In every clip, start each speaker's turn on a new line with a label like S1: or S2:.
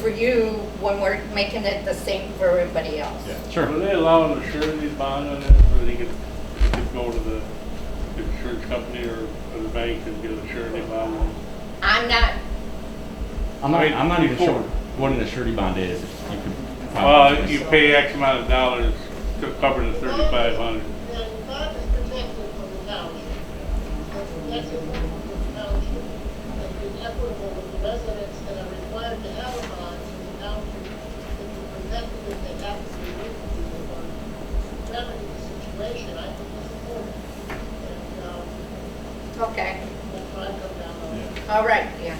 S1: for you when we're making it the same for everybody else.
S2: Sure.
S3: Were they allowing a surety bond on that, where they could, they could go to the the insurance company or or the bank and get a surety bond?
S1: I'm not,
S2: I'm not,
S3: Wait,
S2: I'm not even
S3: before-
S2: sure what an surety bond is. If you could find
S3: Well,
S2: out.
S3: you pay X amount of dollars to cover the thirty-five hundred.
S4: The bond is protected from the township. It's protected from the township. It's been equitable with the residents that are required to have a bond from the township. It's protected if they have to be moved to the bond. Remedy the situation, I think is important. And, um,
S1: okay,
S4: that's why I come down on it.
S1: all right, yeah.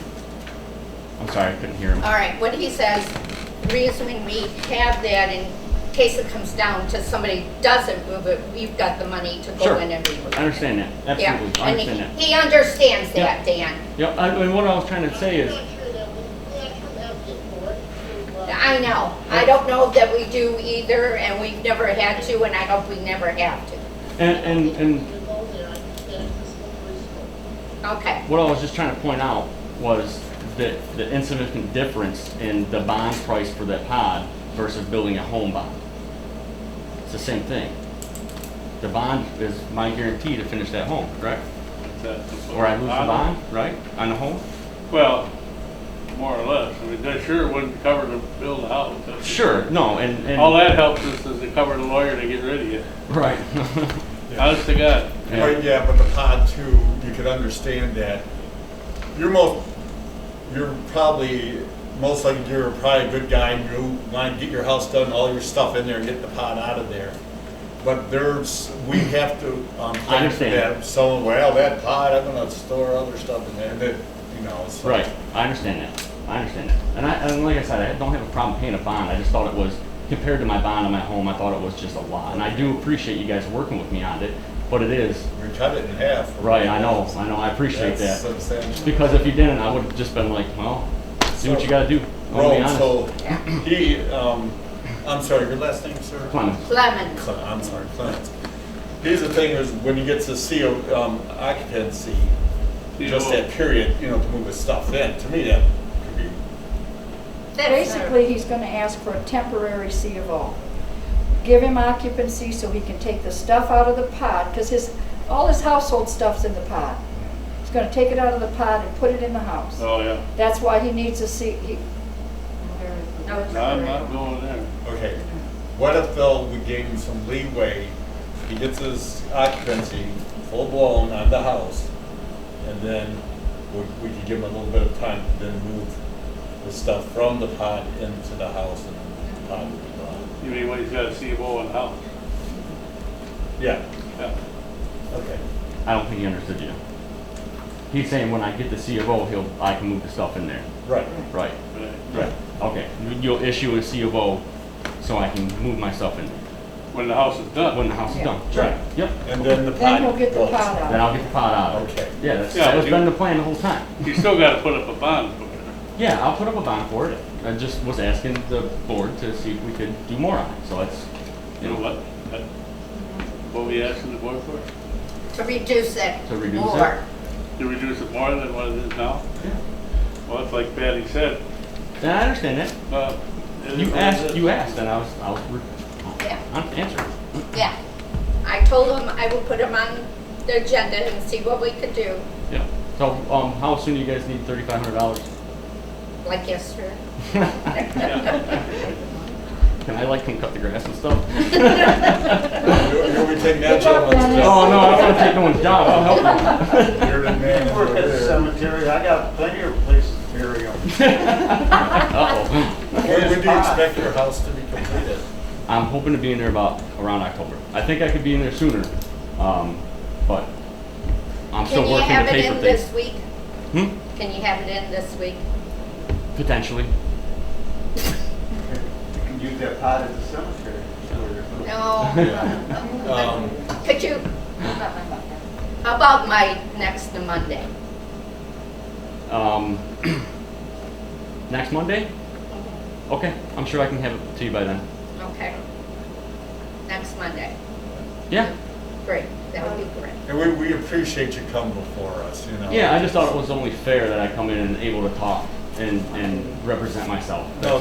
S2: I'm sorry, I couldn't hear him.
S1: All right, what he says, reason we have that in case it comes down to somebody doesn't move it, we've got the money to go
S2: Sure.
S1: in and remove it.
S2: I understand that.
S1: Yeah,
S2: Absolutely. I
S1: and
S2: understand that.
S1: he, he understands that,
S2: Yep.
S1: Dan.
S2: Yeah, I mean, what I was trying to say is,
S4: I'm not sure that we, we actually have the board to, uh,
S1: I know, I don't know that we do either, and we've never had to, and I hope we never have to.
S2: and, and, and
S4: to go there. I think that it's a slippery slope.
S1: Okay,
S2: What I was just trying to point out was the, the insignificant difference in the bond price for that pod versus building a home bond. It's the same thing. The bond is my guarantee to finish that home, correct? Or I lose the bond, right, on the home?
S3: Well, more or less. I mean, that sure wouldn't cover to build a house. That's-
S2: Sure, no, and,
S3: All
S2: and,
S3: that helps us is to cover the lawyer to get rid of you.
S2: right.
S3: Honest to God.
S2: Yeah.
S5: Right, yeah, but the pod too, you could understand that. You're most, you're probably, most likely you're probably a good guy and you want to get your house done, all your stuff in there and get the pod out of there. But there's, we have to, um,
S2: I understand.
S5: that Someone, well, that pod, I'm gonna store other stuff in there, that, you know, so.
S2: Right, I understand that, I understand that. And I, and like I said, I don't have a problem paying a bond, I just thought it was, compared to my bond on my home, I thought it was just a lot. And I do appreciate you guys working with me on it, but it is,
S5: We cut it in half.
S2: Right, I know, I know, I appreciate
S5: That's
S2: that.
S5: substantial.
S2: Because if you didn't, I would've just been like, well, do what you gotta do. I'll be
S5: Road,
S2: honest.
S5: so, he, um, I'm sorry, your last name, sir?
S2: Clemens,
S1: Lemon,
S5: Cle- I'm sorry, Clarence. Here's the thing is, when you get to CO, um, occupancy,
S3: You
S5: just
S3: know-
S5: that period, you know, to move his stuff in, to me, that could be,
S1: that's not,
S6: Basically, he's gonna ask for a temporary C of O. Give him occupancy so he can take the stuff out of the pod, because his, all his household stuff's in the pod. He's gonna take it out of the pod and put it in the house.
S3: Oh, yeah.
S6: That's why he needs a C, he.
S1: No, it's
S3: No, I'm not going there.
S5: okay. What if though we gave him some leeway, he gets his occupancy full blown on the house, and then we, we could give him a little bit of time to then move the stuff from the pod into the house and the pod would be gone.
S3: You mean, when he's got a CFO in the house?
S5: Yeah,
S3: Yeah.
S5: okay.
S2: I don't think he understood you. He's saying when I get the C of O, he'll, I can move the stuff in there.
S5: Right,
S2: Right,
S3: Right.
S5: right.
S2: okay. You'll issue a C of O so I can move my stuff in there
S3: When the house is done.
S2: when the house is done.
S5: Right.
S2: Yep.
S5: And then the pod
S6: Then he'll get the
S5: goes.
S6: pod
S2: Then
S6: out.
S2: I'll get the pot out. of it.
S5: Okay.
S2: Yeah, that's,
S3: Yeah,
S2: that was
S3: you-
S2: been the plan the whole time.
S3: You still gotta put up a bond for it.
S2: Yeah, I'll put up a bond for it. I just was asking the board to see if we could do more on it, so that's,
S3: You know what? That- What we asking the board for?
S1: to reduce it.
S2: To reduce it?
S1: more.
S3: To reduce it more than what it is now?
S2: Yeah.
S3: Well, it's like Patty said,
S2: And I understand that.
S3: uh. it is
S2: You
S3: what it
S2: asked,
S3: is.
S2: you asked, and I was, I was, re-
S1: Yeah.
S2: I'm answering.
S1: Yeah, I told him I would put him on the agenda and see what we could do,
S2: Yeah. So, um, how soon do you guys need thirty-five hundred dollars?
S1: like yesterday.
S2: Can I like come cut the grass and stuff?
S5: You'll, you'll be taking that gentleman's
S6: Good
S2: Oh,
S5: job.
S2: no, I'm gonna take no one's job, I'll help
S5: You're the man
S7: Work
S5: over
S7: at the
S5: there.
S7: cemetery, I got plenty of places to bury 'em.
S2: you.
S5: When when do you expect your house to be completed?
S2: I'm hoping to be in there about, around October. I think I could be in there sooner, um, but I'm
S1: Can
S2: still
S1: you
S2: working the
S1: have it
S2: paper
S1: in this
S2: thing.
S1: week?
S2: Hmm?
S1: Can you have it in this week?
S2: Potentially.
S7: You can use that pot at the cemetery.
S1: No,
S5: Um,
S1: could you? How about my next Monday?
S2: Um, next Monday? Okay, I'm sure I can have it to you by then.
S1: Okay. Next Monday,
S2: Yeah,
S1: great, that would be great.
S5: And we, we appreciate you coming before us, you know.
S2: yeah, I just thought it was only fair that I come in and able to talk and, and represent myself.
S5: No,